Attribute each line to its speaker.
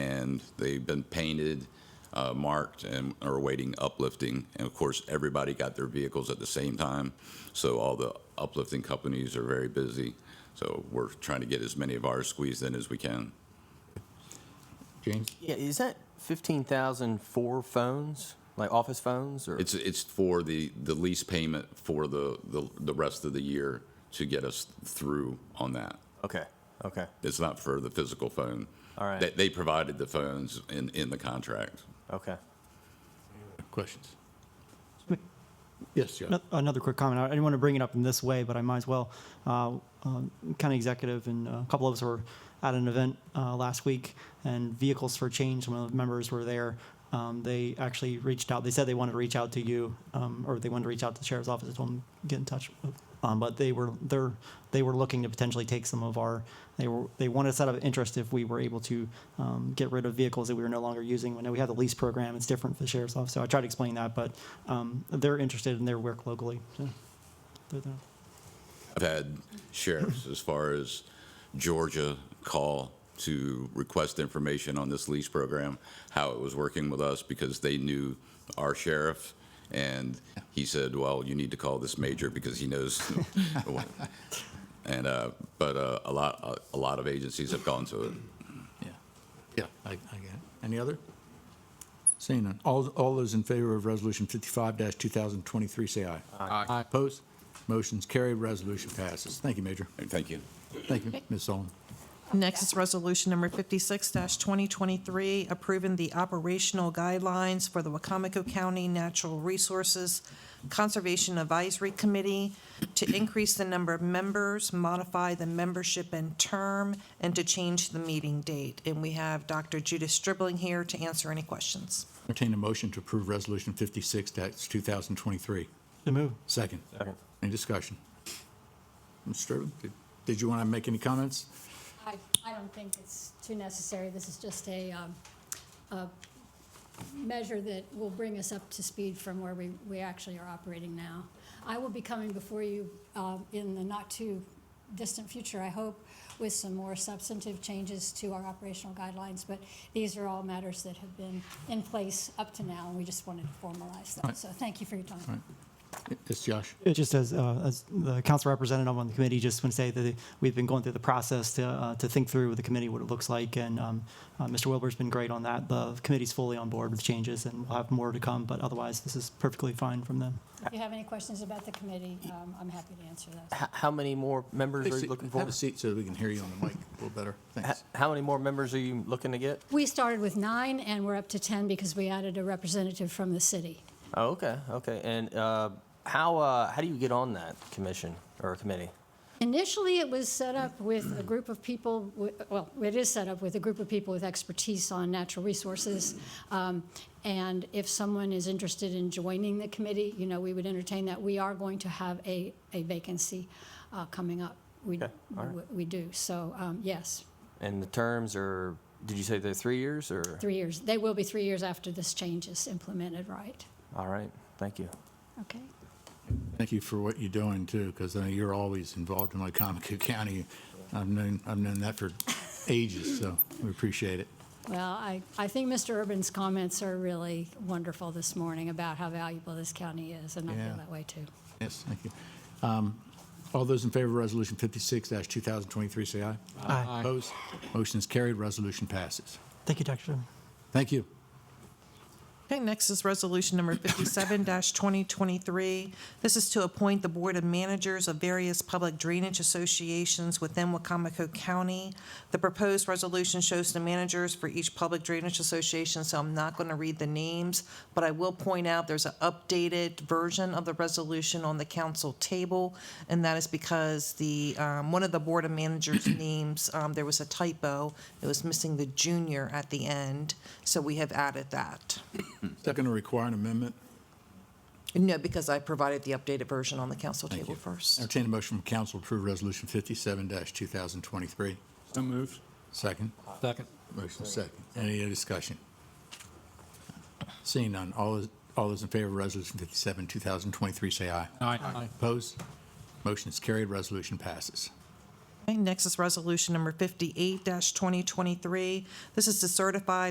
Speaker 1: and they've been painted, uh, marked, and are awaiting uplifting. And of course, everybody got their vehicles at the same time, so all the uplifting companies are very busy. So we're trying to get as many of ours squeezed in as we can.
Speaker 2: James?
Speaker 3: Yeah, is that 15,000 for phones, like office phones or?
Speaker 1: It's, it's for the, the lease payment for the, the, the rest of the year to get us through on that.
Speaker 3: Okay, okay,
Speaker 1: It's not for the physical phone.
Speaker 3: All right.
Speaker 1: They, they provided the phones in, in the contract.
Speaker 3: okay.
Speaker 2: Questions? Yes, John.
Speaker 4: Ano- Another quick comment. I didn't want to bring it up in this way, but I might as well. Uh, um, County executive and a couple of us were at an event uh, last week, and Vehicles for Change, one of the members were there. Um, They actually reached out, they said they wanted to reach out to you, um, or they wanted to reach out to the sheriff's office, I told them, get in touch. Um, But they were, they're, they were looking to potentially take some of our, they were, they wanted us out of interest if we were able to um, get rid of vehicles that we were no longer using. I know we have the lease program, it's different for the sheriff's office, so I tried to explain that, but um, they're interested in their work locally. so they're there.
Speaker 1: I've had sheriffs as far as Georgia call to request information on this lease program, how it was working with us because they knew our sheriff. And he said, well, you need to call this major because he knows. what." And, uh, but, uh, a lot, a- a lot of agencies have gone to it.
Speaker 2: Yeah, yeah, I, I get it. Any other? Seeing none. All, all those in favor of Resolution 55-2023, say aye. Aye. Opposed? Motion's carried, resolution passes. Thank you, Major.
Speaker 1: Thank you.
Speaker 2: Thank you, Ms. Solon.
Speaker 5: Next is Resolution Number 56-2023, approving the operational guidelines for the Wacomico County Natural Resources Conservation Advisory Committee to increase the number of members, modify the membership and term, and to change the meeting date. And we have Dr. Judith Stribling here to answer any questions.
Speaker 2: Entertain a motion to approve Resolution 56-2023.
Speaker 4: So move.
Speaker 2: Second. Second. Any discussion? Mr. Sterling, did- did you want to make any comments?
Speaker 6: I, I don't think it's too necessary. This is just a, um, a measure that will bring us up to speed from where we, we actually are operating now. I will be coming before you, um, in the not-too-distant future, I hope, with some more substantive changes to our operational guidelines, but these are all matters that have been in place up to now, and we just wanted to formalize them. So thank you for your time.
Speaker 2: It's Josh.
Speaker 4: It just as, uh, as the council representative on the committee, just want to say that we've been going through the process to, uh, to think through with the committee what it looks like, and, um, uh, Mr. Wilbur's been great on that. The committee's fully on board with changes, and we'll have more to come, but otherwise, this is perfectly fine from them.
Speaker 6: If you have any questions about the committee, um, I'm happy to answer those.
Speaker 3: H- How many more members are you looking for?
Speaker 2: Have a seat so we can hear you on the mic a little better.
Speaker 3: H-
Speaker 2: Thanks.
Speaker 3: How many more members are you looking to get?
Speaker 6: We started with nine, and we're up to 10 because we added a representative from the city.
Speaker 3: Oh, okay, okay. And uh, how, uh, how do you get on that commission or committee?
Speaker 6: Initially, it was set up with a group of people, wi- well, it is set up with a group of people with expertise on natural resources. Um, And if someone is interested in joining the committee, you know, we would entertain that. We are going to have a a vacancy uh, coming up. We
Speaker 3: Okay, all right.
Speaker 6: we- we do, so, um, yes,
Speaker 3: And the terms are, did you say they're three years or?
Speaker 6: three years. They will be three years after this change is implemented, right?
Speaker 3: All right, thank you.
Speaker 6: Okay.
Speaker 2: Thank you for what you're doing too, because I know you're always involved in Wycomico County. I've known, I've known that for ages, so we appreciate it.
Speaker 6: Well, I, I think Mr. Urban's comments are really wonderful this morning about how valuable this county is, and I
Speaker 2: Yeah.
Speaker 6: feel that way too.
Speaker 2: Yes, thank you. Um, All those in favor of Resolution 56-2023, say aye.
Speaker 4: Aye.
Speaker 2: Opposed? Motion is carried, resolution passes.
Speaker 4: Thank you, Dr. Chairman.
Speaker 2: Thank you.
Speaker 5: Okay, next is Resolution Number 57-2023. This is to appoint the Board of Managers of various public drainage associations within Wacomico County. The proposed resolution shows the managers for each public drainage association, so I'm not going to read the names, but I will point out there's an updated version of the resolution on the council table, and that is because the, um, one of the Board of Managers' names, um, there was a typo. It was missing the junior at the end, so we have added that.
Speaker 2: Is that going to require an amendment?
Speaker 5: No, because I provided the updated version on the council
Speaker 2: Thank
Speaker 5: table
Speaker 2: you.
Speaker 5: first.
Speaker 2: Entertain a motion from council to approve Resolution 57-2023.
Speaker 7: So moved.
Speaker 2: Second?
Speaker 7: Second.
Speaker 2: Motion is second. Any other discussion? Seeing none, all those, all those in favor of Resolution 57, 2023, say aye.
Speaker 7: Aye.
Speaker 2: Opposed? Motion is carried, resolution passes.
Speaker 5: Okay, Next is resolution number fifty-eight twenty twenty-three. This is to certify